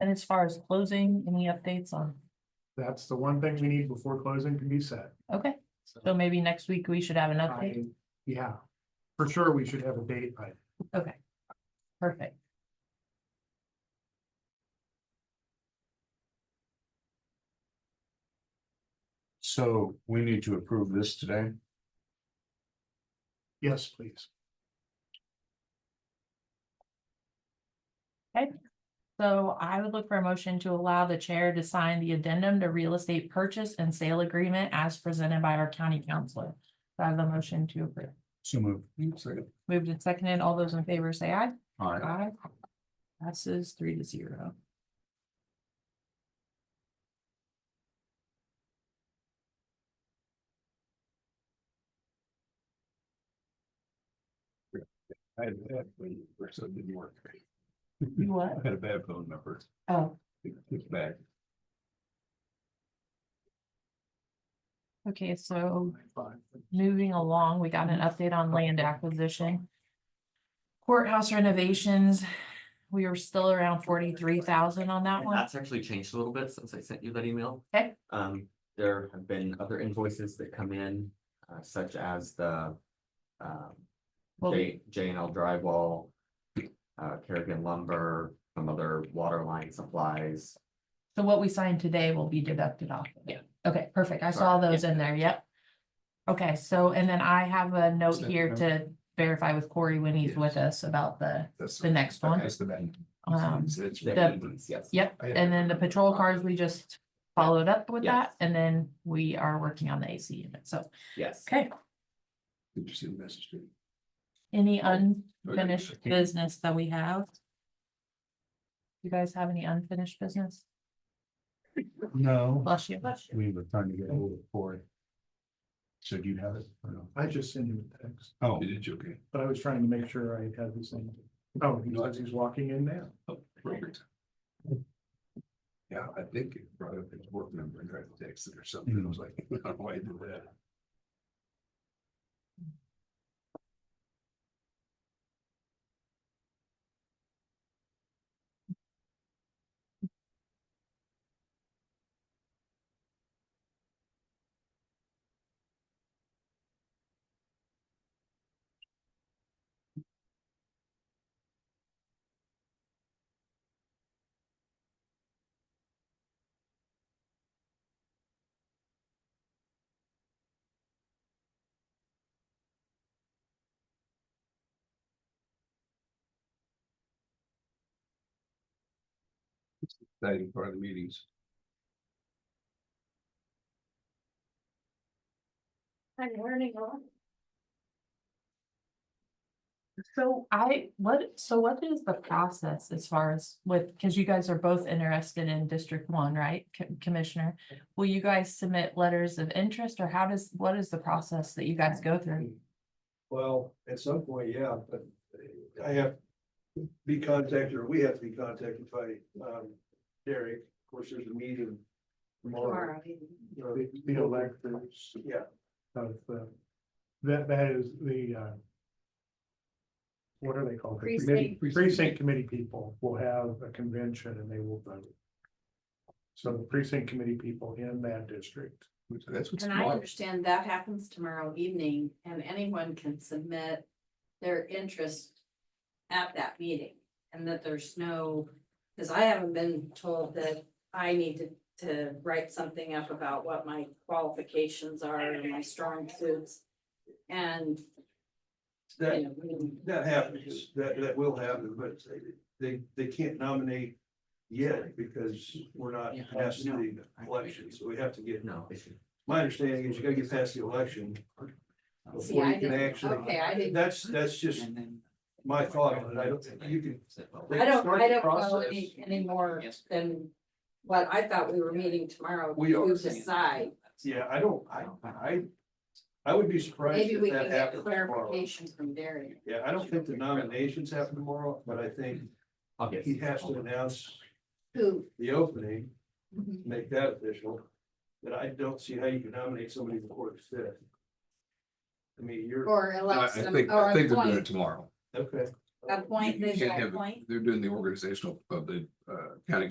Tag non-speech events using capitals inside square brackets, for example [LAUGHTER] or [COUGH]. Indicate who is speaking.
Speaker 1: And as far as closing, any updates on,
Speaker 2: That's the one thing we need before closing can be set.
Speaker 1: okay,
Speaker 2: So
Speaker 1: so maybe next week we should have an update,
Speaker 2: I- Yeah, for sure, we should have a date, by
Speaker 1: okay. Perfect.
Speaker 3: So we need to approve this today.
Speaker 2: yes, please.
Speaker 1: So I would look for a motion to allow the chair to sign the addendum to real estate purchase and sale agreement as presented by our county counselor. Do I have a motion to approve.
Speaker 3: So move.
Speaker 1: Moved and seconded, all those in favor say aye.
Speaker 3: Alright,
Speaker 1: Aye. Passes three to zero.
Speaker 3: I had a bad phone number, so it didn't work.
Speaker 1: You what?
Speaker 3: I had a bad phone number.
Speaker 1: Oh,
Speaker 3: It- It's back.
Speaker 1: okay, so
Speaker 2: Fine.
Speaker 1: moving along, we got an
Speaker 4: Mm-hmm.
Speaker 1: update on land acquisition. Courthouse renovations, we are still around forty-three thousand on that
Speaker 4: And
Speaker 1: one.
Speaker 4: That's actually changed a little bit since I sent you that email.
Speaker 1: Okay.
Speaker 4: Um, there have been other invoices that come in, uh, such as the. Um,
Speaker 1: Well,
Speaker 4: J, J and L drywall. Uh, Kerrigan lumber, some other water line supplies.
Speaker 1: So what we signed today will be deducted off. of it.
Speaker 4: Yeah.
Speaker 1: Okay, perfect. I saw
Speaker 4: Sorry,
Speaker 1: those in there, yep. Okay, so, and then I have a note
Speaker 3: Second.
Speaker 1: here to verify with Corey when he's
Speaker 3: Yes.
Speaker 1: with us about the,
Speaker 3: That's
Speaker 1: the next one.
Speaker 3: That's the bad.
Speaker 1: Um,
Speaker 3: It's-
Speaker 1: the-
Speaker 4: Yes.
Speaker 1: Yep,
Speaker 3: I-
Speaker 1: and then the patrol cars, we just followed up with that,
Speaker 4: Yes.
Speaker 1: and then we are working on the AC unit, so,
Speaker 4: Yes.
Speaker 1: okay.
Speaker 3: Did you see the message?
Speaker 1: Any
Speaker 5: Oh,
Speaker 3: okay.
Speaker 1: unfinished business that we have? You guys have any unfinished business?
Speaker 3: No,
Speaker 1: Bless you.
Speaker 3: we were trying to get hold of Cory. So do you have it or no?
Speaker 2: I just sent him a text,
Speaker 3: Oh, it's okay.
Speaker 2: but I was trying to make sure I had this thing. Oh, he says he's walking in now.
Speaker 3: Perfect. Yeah, I think it brought up his work number and tried to text it or something. I was like, [LAUGHS] why do that? Exciting part of the meetings.
Speaker 6: I'm learning a lot.
Speaker 1: So I, what, so what is the process as far as with, because you guys are both interested in District One, right, Co- Commissioner? Will you guys submit letters of interest or how does, what is the process that you guys go through?
Speaker 5: Well, at some point, yeah, but I have to be contacted, or we have to be contacted by um Derek, of course, there's a meeting. Tomorrow. You know,
Speaker 2: The the electors
Speaker 5: Yeah,
Speaker 2: of the, that, that is the, uh. What are they called? The committee- Precinct committee people will have a convention and they will vote. So the precinct committee people in that district
Speaker 3: That's what's.
Speaker 6: And I
Speaker 3: smart.
Speaker 6: understand that happens tomorrow evening and anyone can submit their interest at that meeting. And that there's no, because I haven't been told that I need to, to write something up about what my qualifications are and my strong suits. And, you
Speaker 5: that
Speaker 6: know, we-
Speaker 5: that happens, that that will happen, but they they can't nominate yet because we're not
Speaker 4: Yeah,
Speaker 5: past
Speaker 4: no.
Speaker 5: the election, so we have to get,
Speaker 4: No issue.
Speaker 5: my understanding is you gotta get past the election.
Speaker 6: See,
Speaker 5: Before
Speaker 6: I
Speaker 5: you can
Speaker 6: didn't-
Speaker 5: actually,
Speaker 6: okay, I didn't-
Speaker 5: that's that's just my thought, on it. I don't, you can
Speaker 6: I don't,
Speaker 5: Start
Speaker 6: I
Speaker 5: the
Speaker 6: don't know
Speaker 5: process.
Speaker 6: any, any more than what I thought we were meeting tomorrow.
Speaker 5: We are.
Speaker 6: To decide.
Speaker 5: Yeah, I don't, I, I, I would be surprised
Speaker 6: Maybe
Speaker 5: if
Speaker 6: we can
Speaker 5: that
Speaker 6: get
Speaker 5: happened tomorrow.
Speaker 6: clarification from Darian.
Speaker 5: Yeah, I don't think the nominations happen tomorrow, but I think
Speaker 4: I'll get-
Speaker 5: he has to announce
Speaker 6: Who?
Speaker 5: the opening, make that official. But I don't see how you can nominate somebody before the fifth. I mean, you're,
Speaker 6: Or
Speaker 7: I I
Speaker 6: elect some,
Speaker 7: think,
Speaker 6: or
Speaker 7: I think they're doing it
Speaker 6: appoint,
Speaker 7: tomorrow.
Speaker 5: okay.
Speaker 6: appoint,
Speaker 7: You
Speaker 6: this
Speaker 7: can't have it.
Speaker 6: appoint.
Speaker 7: They're doing the organizational of the uh county